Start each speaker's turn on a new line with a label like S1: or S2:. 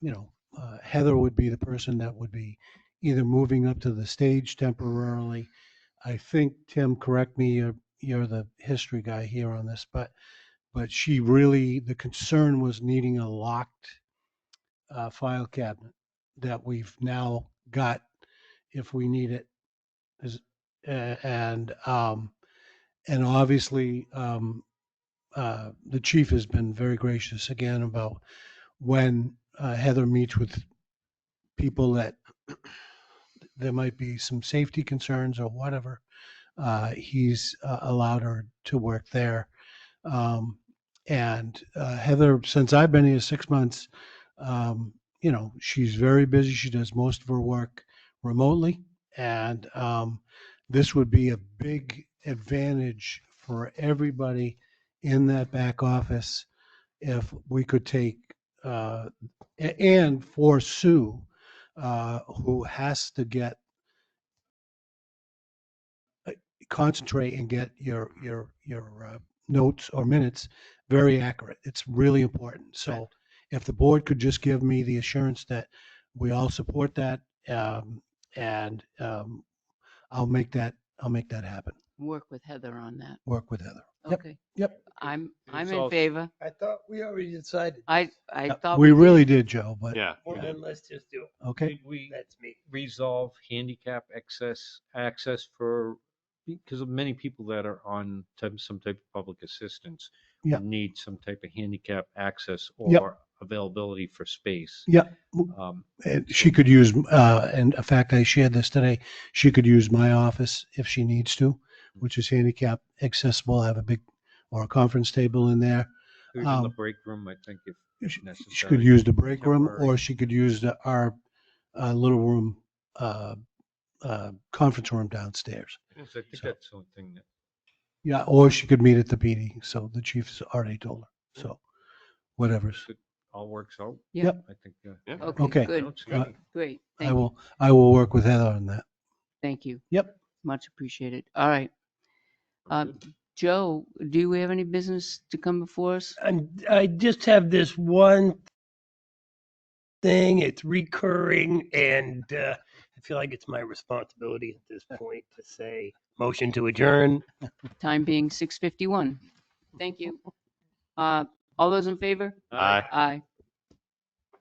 S1: you know, uh, Heather would be the person that would be either moving up to the stage temporarily. I think, Tim, correct me, you're, you're the history guy here on this, but, but she really, the concern was needing a locked uh, file cabinet that we've now got if we need it. Is- a- And, um, and obviously, um, uh, the chief has been very gracious again about when uh, Heather meets with people that there might be some safety concerns or whatever, uh, he's uh, allowed her to work there. Um, and uh, Heather, since I've been here six months, um, you know, she's very busy. She does most of her work remotely. And um, this would be a big advantage for everybody in that back office if we could take, uh, a- and for Sue, uh, who has to get uh, concentrate and get your your your uh, notes or minutes very accurate. It's really important. So if the board could just give me the assurance that we all support that, um, and um, I'll make that I'll make that happen.
S2: work with Heather on that.
S1: Work with Heather. Yep,
S2: Okay.
S1: yep.
S2: I'm,
S3: And
S2: I'm
S3: it's
S2: in
S3: also-
S2: favor.
S4: I thought we already decided.
S2: I, I
S1: Yep,
S2: thought.
S1: we
S2: did.
S1: really did, Joe. But
S3: Yeah.
S4: Well,
S1: yeah.
S4: then let's just do it.
S1: okay,
S3: Did we
S4: That's me.
S3: resolve handicap access, access for, because of many people that are on type- some type of public assistance.
S1: Yeah.
S3: Need some type of handicap access
S1: Yep.
S3: or availability for space.
S1: Yeah.
S3: Um,
S1: And she could use. Uh, and in fact, I shared this today. She could use my office if she needs to,
S2: Hmm.
S1: which is handicap accessible. I have a big or a conference table in there.
S3: Even the
S1: Um,
S3: break room, I think if
S1: She- She could
S3: necessary.
S1: use the break room
S3: temporary.
S1: or she could use the, our, uh, little room, uh, uh, conference room downstairs.
S3: Yes, I think
S1: So-
S3: that's something that,
S1: Yeah, or she could meet at the PD. So the chief's already told
S2: Hmm.
S1: her. So whatever's.
S3: all works out.
S2: Yeah.
S1: Yep.
S3: I think. uh,
S5: Yeah.
S3: yeah,
S2: Okay,
S1: Okay.
S3: I
S2: good,
S3: don't see
S1: Uh,
S3: any-
S2: great.
S1: I
S2: Thank, you.
S1: will, I will work with Heather on that.
S2: thank you.
S1: Yep.
S2: Much appreciated. All right.
S3: I'm
S2: Um,
S3: good.
S2: Joe, do we have any business to come before us?
S4: i I just have this one thing. It's recurring, and uh, I feel like it's my responsibility at this point to say motion to adjourn.
S2: Time being 6:51. Thank you. Uh, All those in favor?
S5: Aye.
S2: Aye.